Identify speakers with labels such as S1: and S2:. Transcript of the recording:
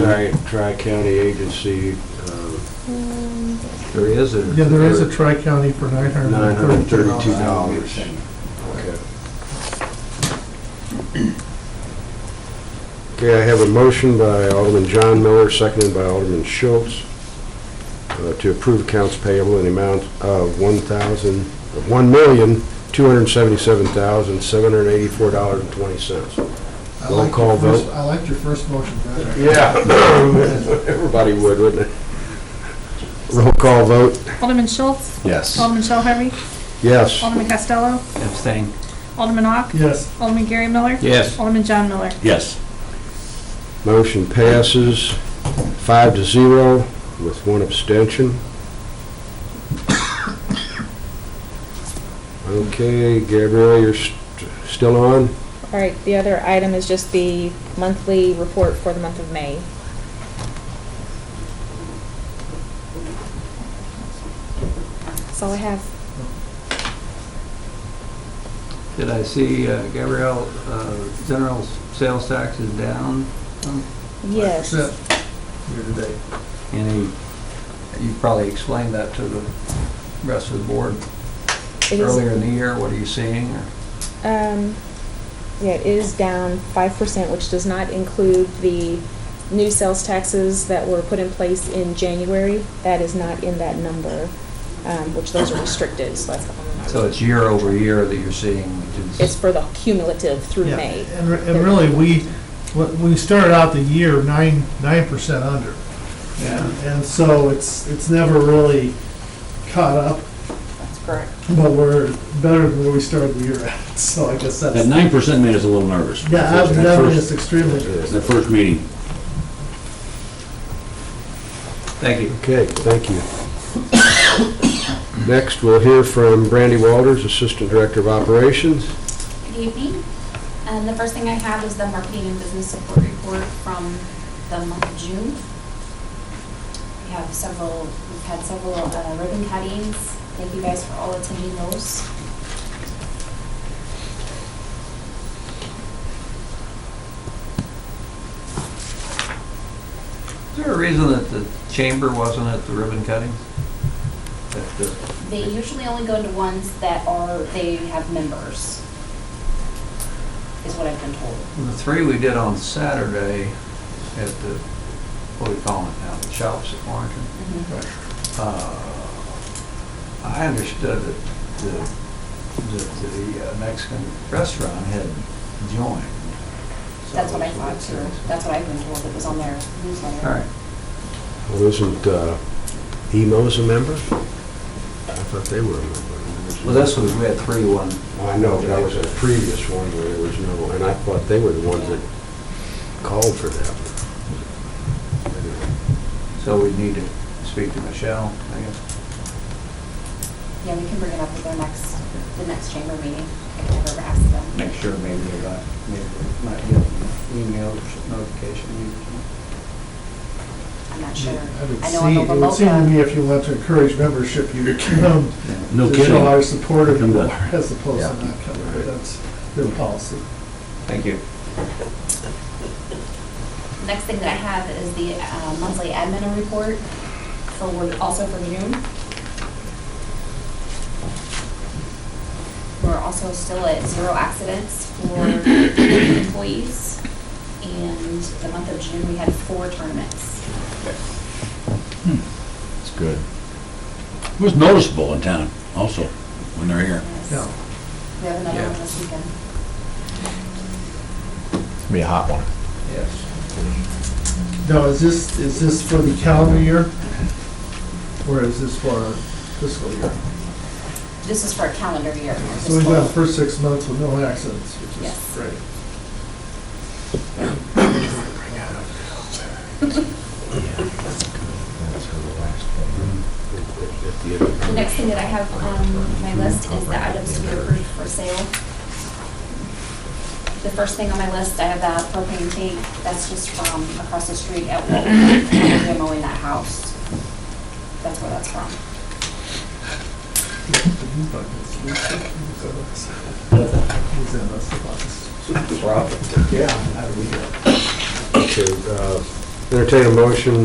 S1: tri, tri-county agency, uh,
S2: There is a.
S3: Yeah, there is a tri-county for nine hundred
S1: nine
S3: and
S1: hundred
S3: thirty-two
S1: thirty-two
S3: dollars.
S1: dollars. Okay, Okay. I have a motion by Alderman John Miller, seconded by Alderman Schultz, uh, to approve accounts payable in the amount of one thousand, one million, two hundred and seventy-seven thousand, seven hundred and eighty-four dollars and twenty cents.
S3: I
S1: Roll
S3: liked your
S1: call
S3: first-
S1: vote.
S3: I liked your first motion better.
S1: Yeah, everybody would, wouldn't it? Roll call vote,
S4: Alderman Schultz?
S5: Yes.
S6: Um,
S4: Alderman Shell Harvey?
S1: yes.
S4: Alderman Costello?
S2: Abstain.
S4: Alderman Ock?
S3: Yes,
S4: Alderman Gary Miller?
S2: Yes.
S4: Alderman John Miller?
S5: Yes.
S1: Motion passes five to zero with one abstention. Okay, Gabrielle, you're st- still on?
S6: All right, the other item is just the monthly report for the month of May. That's all I have.
S2: Did I see uh, Gabrielle, uh, general sales tax is down?
S6: Yes.
S3: percent year to date.
S2: Any, you probably explained that to the rest of the board
S6: It is-
S2: earlier in the year. What are you seeing? or-
S6: Um, yeah, it is down five percent, which does not include the new sales taxes that were put in place in January. That is not in that number, um, which those are restricted, so that's the only. number.
S2: So it's year over year that you're seeing, which
S6: It's
S2: is,
S6: for the cumulative through
S3: Yeah,
S6: May.
S3: And, re- and really, we, what- we started out the year nine, nine percent under.
S2: yeah,
S3: And so it's, it's never really caught up,
S6: That's correct.
S3: but we're better than where we started the year at, so I guess that's.
S5: That nine percent made us a little nervous.
S3: Yeah, that-
S5: That
S3: that
S5: first-
S3: is extremely good.
S5: The first meeting.
S2: thank you.
S1: Okay, thank you. Next, we'll hear from Brandy Walters, Assistant Director of Operations.
S7: Good evening. And the first thing I have is the marketing and business support report from the month of June. We have several, we've had several uh, ribbon cuttings. Thank you guys for all attending those.
S2: Is there a reason that the chamber wasn't at the ribbon cutting? That the-
S7: They usually only go to ones that are, they have members, is what I've been told.
S2: The three we did on Saturday at the, what do we call it now, the shops at Warrington?
S7: Mm-hmm.
S2: Uh, I understood that the, that the uh, Mexican restaurant had joined. So
S7: That's what I
S2: it's a
S7: thought
S2: bit
S7: too.
S2: serious.
S7: That's what I've been told. It was on their newsletter.
S2: All right,
S1: Well, isn't uh, EMO's a member? I thought they were a member.
S2: well, this was, we had three one.
S1: I know, but that was a previous one where there was no, and I thought they were the ones that called for that.
S2: So we need to speak to Michelle, I guess.
S7: Yeah, we can bring it up at their next, the next chamber meeting. I can never ask them.
S2: Make sure maybe they got, maybe they might get an email or some notification. maybe or something.
S7: I'm not sure.
S3: I would
S7: I know on
S3: see,
S7: the
S3: it would seem to
S7: Wamoka,
S3: me if you want to encourage membership, you would come
S5: No
S3: to show our
S5: kidding.
S3: support of
S5: Come
S3: you
S5: to-
S3: as opposed
S2: Yeah.
S3: to not coming. That's their policy.
S2: Thank you.
S7: next thing that I have is the uh, monthly admin report for, Word- also for June. We're also still at zero accidents for employees. And the month of June, we had four tournaments.
S5: It's good. It was noticeable in town also when they're here.
S7: Yes.
S3: Yeah.
S7: We have another
S2: Yeah.
S7: one this weekend.
S8: Be a hot one.
S2: Yes.
S3: Now, is this, is this for the calendar year? Or is this for our fiscal year?
S7: This is for a calendar year.
S3: So we've got the first six months with no accidents, which
S7: Yes.
S3: is great.
S2: Mm-hmm.
S7: The next thing that I have on my list is the items to be approved for sale. The first thing on my list, I have that propane tank, that's just from across the street at Walmart, demoing that house. That's where that's from.
S3: Is that us?
S2: Rob? Yeah. How do we do it?
S1: Okay, uh, Entertain a motion